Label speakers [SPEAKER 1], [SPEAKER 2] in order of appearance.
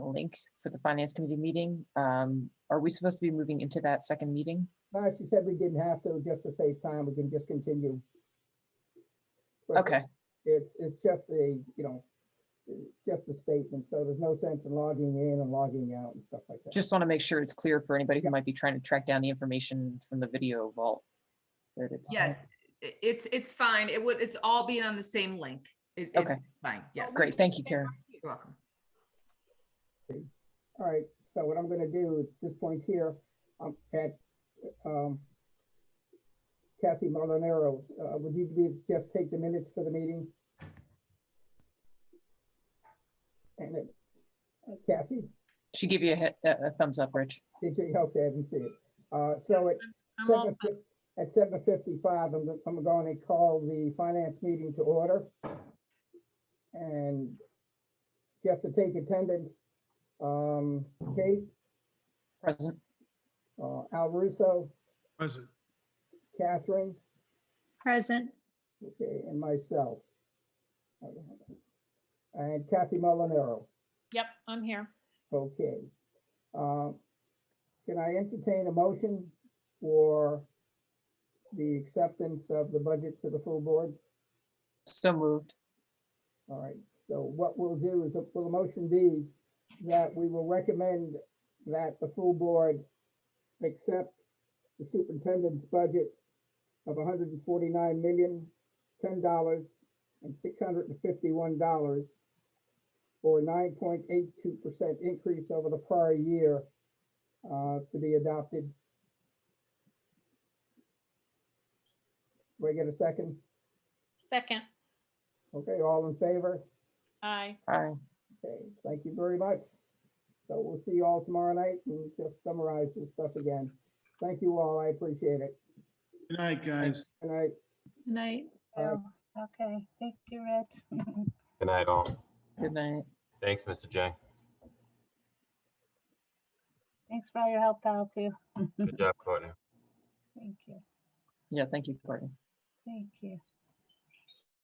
[SPEAKER 1] link for the finance committee meeting. Um, Are we supposed to be moving into that second meeting?
[SPEAKER 2] Uh, she said we didn't have to, just to save time, we can just continue. But
[SPEAKER 1] Okay,
[SPEAKER 2] It's, it's just a, you know, it's just a statement, so there's no sense in logging in and logging out and stuff like that.
[SPEAKER 1] just want to make sure it's clear for anybody who
[SPEAKER 2] Yeah.
[SPEAKER 1] might be trying to track down the information from the video vault. That it's,
[SPEAKER 3] Yeah, i- it's, it's fine. It would, it's all being on the same link. It- it-
[SPEAKER 1] Okay.
[SPEAKER 3] it's Fine, yes.
[SPEAKER 1] great, thank you, Karen.
[SPEAKER 3] You're welcome.
[SPEAKER 2] All right, so what I'm gonna do at this point here, um, at, um, Kathy Molinaro, uh, would you be, just take the minutes for the meeting? And it, Kathy,
[SPEAKER 1] She gave you a he- a a thumbs up, Rich.
[SPEAKER 2] did you, okay, I didn't see it. Uh, so at
[SPEAKER 4] I'm all
[SPEAKER 2] seven, fif- at seven fifty-five, I'm, go- I'm going to call the finance meeting to order. And just to take attendance, um, Kate,
[SPEAKER 1] Present.
[SPEAKER 2] uh, Al Russo,
[SPEAKER 5] Present.
[SPEAKER 2] Catherine,
[SPEAKER 4] present,
[SPEAKER 2] okay, and myself. And Kathy Molinaro,
[SPEAKER 4] yep, I'm here.
[SPEAKER 2] okay. Um, Can I entertain a motion for the acceptance of the budget to the full board?
[SPEAKER 1] So moved.
[SPEAKER 2] All right, so what we'll do is, will the motion be that we will recommend that the full board accept the superintendent's budget of hundred and forty-nine million, ten dollars and six hundred and fifty-one dollars or nine point eight two percent increase over the prior year uh, to be adopted. Do I get a second?
[SPEAKER 4] Second,
[SPEAKER 2] Okay, all in favor?
[SPEAKER 4] aye,
[SPEAKER 1] Aye.
[SPEAKER 2] Okay, thank you very much. So we'll see you all tomorrow night and just summarize this stuff again. Thank you all. I appreciate it.
[SPEAKER 5] Good night, guys.
[SPEAKER 2] Good night.
[SPEAKER 4] Good night.
[SPEAKER 2] Aye.
[SPEAKER 6] Oh, Okay, thank you, Rich.
[SPEAKER 7] Good night, all.
[SPEAKER 1] Good night.
[SPEAKER 7] Thanks, Mr. J.
[SPEAKER 6] Thanks for all your help, pal, too.
[SPEAKER 7] Good job, Courtney.
[SPEAKER 6] Thank you,
[SPEAKER 1] Yeah, thank you, Courtney.
[SPEAKER 6] thank you.